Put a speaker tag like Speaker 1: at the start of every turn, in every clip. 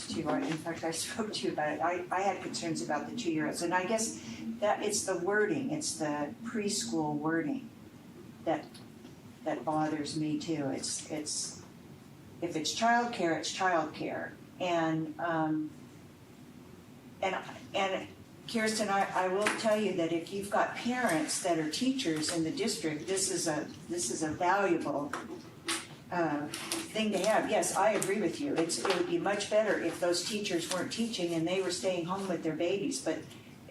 Speaker 1: to you, in fact, I spoke to you about it, I, I had concerns about the two-year-olds, and I guess that, it's the wording, it's the preschool wording that, that bothers me too, it's, it's, if it's childcare, it's childcare, and, um, and, and Kirsten, I, I will tell you that if you've got parents that are teachers in the district, this is a, this is a valuable, uh, thing to have, yes, I agree with you, it's, it would be much better if those teachers weren't teaching and they were staying home with their babies, but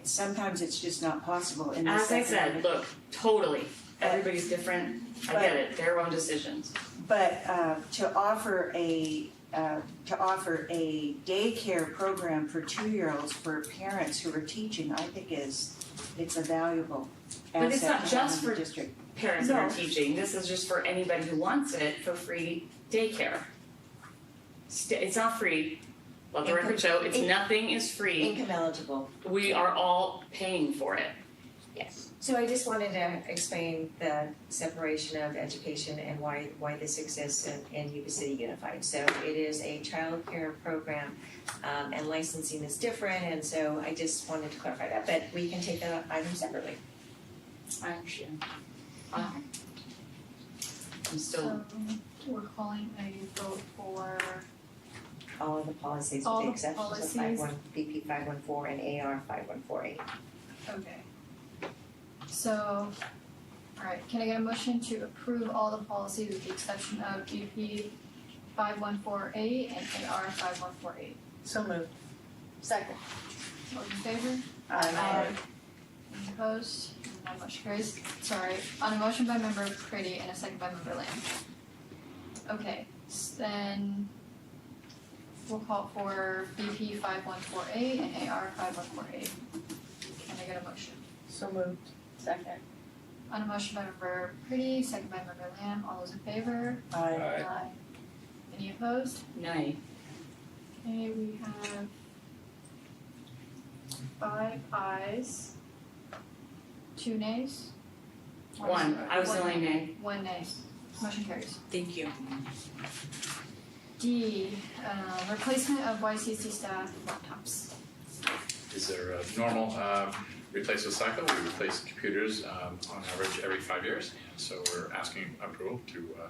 Speaker 1: sometimes it's just not possible in this
Speaker 2: As I said,
Speaker 1: economic-
Speaker 2: look, totally, everybody's different, I get it, their own decisions.
Speaker 1: But, uh, to offer a, uh, to offer a daycare program for two-year-olds for parents who are teaching, I think is, it's a valuable
Speaker 2: But it's not
Speaker 1: asset to have
Speaker 2: just
Speaker 1: in the
Speaker 2: for-
Speaker 1: district.
Speaker 2: Parents that are
Speaker 1: No.
Speaker 2: teaching, this is just for anybody who wants it for free daycare. St- it's not free, let the record show, it's,
Speaker 3: Income-
Speaker 2: nothing is free,
Speaker 3: Income eligible,
Speaker 2: we are all paying for it.
Speaker 3: yes. So I just wanted to explain the separation of education and why, why this exists in, in Yuba City Unified. So it is a childcare program, um, and licensing is different, and so I just wanted to clarify that, but we can take that item separately.
Speaker 2: I understand. Wow. I'm still,
Speaker 4: So we're calling a vote for,
Speaker 3: All of the policies
Speaker 4: All
Speaker 3: with
Speaker 4: the
Speaker 3: the exceptions of
Speaker 4: policies.
Speaker 3: five one, BP five one four and AR five one four eight.
Speaker 4: okay. So, alright, can I get a motion to approve all the policies with the exception of BP five one four eight and AR five one four eight?
Speaker 5: So moved.
Speaker 4: Second. All in favor?
Speaker 5: Aye.
Speaker 4: Any opposed? None motion carries. Sorry, on a motion by member Pretty and a second by member Lamb. Okay, s- then we'll call for BP five one four eight and AR five one four eight. Can I get a motion?
Speaker 5: So moved.
Speaker 6: Second.
Speaker 4: On a motion by member Pretty, second by member Lamb, all those in favor?
Speaker 5: Aye.
Speaker 7: Aye.
Speaker 4: Any opposed?
Speaker 2: nay,
Speaker 4: Okay, we have five ayes, two nays.
Speaker 2: one, I was the only nay.
Speaker 4: One nay. Motion carries.
Speaker 6: Thank you.
Speaker 4: D, uh, replacement of YCC staff laptops.
Speaker 7: is their uh, normal uh, replacement cycle. We replace computers um, on average every five years, and so we're asking approval to uh,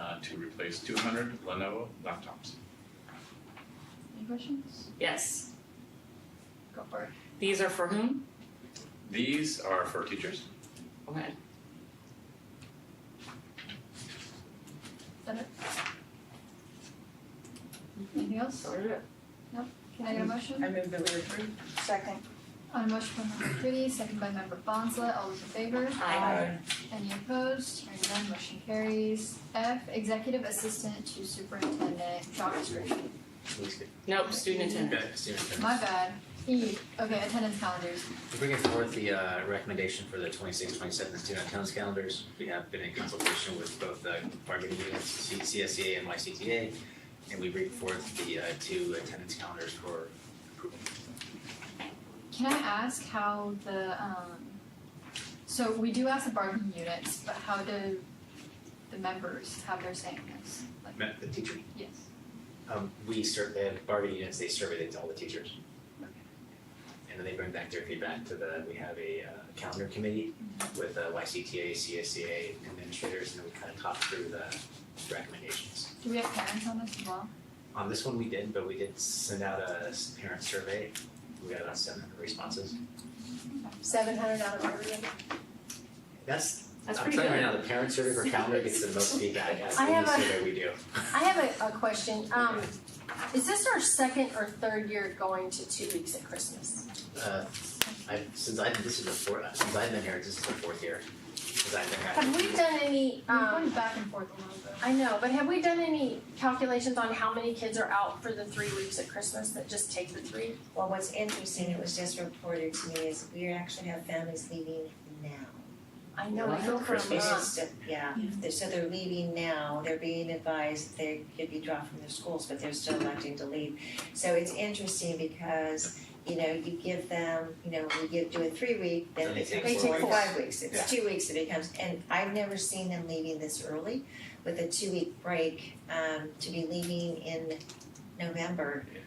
Speaker 7: uh, to replace 200 Lenovo laptops.
Speaker 4: Any questions?
Speaker 2: Yes,
Speaker 4: Go for it.
Speaker 2: these are for whom?
Speaker 7: These are for teachers.
Speaker 2: Go ahead.
Speaker 4: Is that it? Anything else?
Speaker 2: Sorted it.
Speaker 4: Can I get a motion?
Speaker 5: I move that we approve.
Speaker 1: Second,
Speaker 4: On a motion from member Pretty, second by member Bonzle, all those in favor?
Speaker 2: Aye.
Speaker 4: Any opposed? Hearing none, motion carries. F, executive assistant to superintendent, job description.
Speaker 2: Nope, student attendance.
Speaker 8: Okay, student
Speaker 4: My
Speaker 8: attendance.
Speaker 4: bad. E, okay, attendance calendars.
Speaker 8: We're bringing forward the uh, recommendation for the 26, 27 student attendance calendars. We have been in consultation with both the bargaining units, C- CSEA and YCTA, and we bring forth the uh, two attendance calendars for approval.
Speaker 4: Can I ask how the um so we do ask the bargaining units, but how do the members have their say in this? Like
Speaker 8: Met the teacher.
Speaker 4: yes.
Speaker 8: Um, we serve the bargaining units, they survey it to all the teachers.
Speaker 4: Okay.
Speaker 8: And then they bring back their feedback to the, we have a uh, calendar committee with uh, YCTA, CSEA administrators, and then we kind of talk through the recommendations.
Speaker 4: Do we have parents on this as well?
Speaker 8: On Um, this one, we did, but we did send out a s- parent survey. We got about seven hundred responses.
Speaker 6: Seven hundred out of every.
Speaker 8: That's,
Speaker 2: That's
Speaker 8: I'm
Speaker 2: pretty
Speaker 8: telling you right
Speaker 2: good.
Speaker 8: now, the parent survey for calendar gets the most feedback out of
Speaker 6: I have
Speaker 8: any
Speaker 6: a-
Speaker 8: survey we do.
Speaker 6: I have a, a question. Um, is this our second or third year going to two weeks at Christmas?
Speaker 8: Uh, I, since I, this is the fourth, since I've been here, this is the fourth year, since I've been here.
Speaker 6: Have we done any,
Speaker 4: We're going
Speaker 6: um,
Speaker 4: back and forth a little bit.
Speaker 6: I know, but have we done any calculations on how many kids are out for the three weeks at Christmas that just take the three?
Speaker 3: Well, what's interesting, it was just reported to me, is we actually have families leaving now.
Speaker 6: I know, I
Speaker 8: What?
Speaker 6: feel for a
Speaker 8: Christmas?
Speaker 6: mom.
Speaker 3: It's just, yeah, They're- so they're leaving now, they're being advised they could be dropped from their schools, but they're still electing to leave. So it's interesting because, you know, you give them, you know, we give, do a three week, then
Speaker 8: Then
Speaker 3: it
Speaker 8: they take
Speaker 3: becomes
Speaker 8: four
Speaker 3: four, or
Speaker 8: weeks.
Speaker 3: five weeks, it's two weeks it becomes, and I've never seen them leaving this early with a two week break, um, to be leaving in November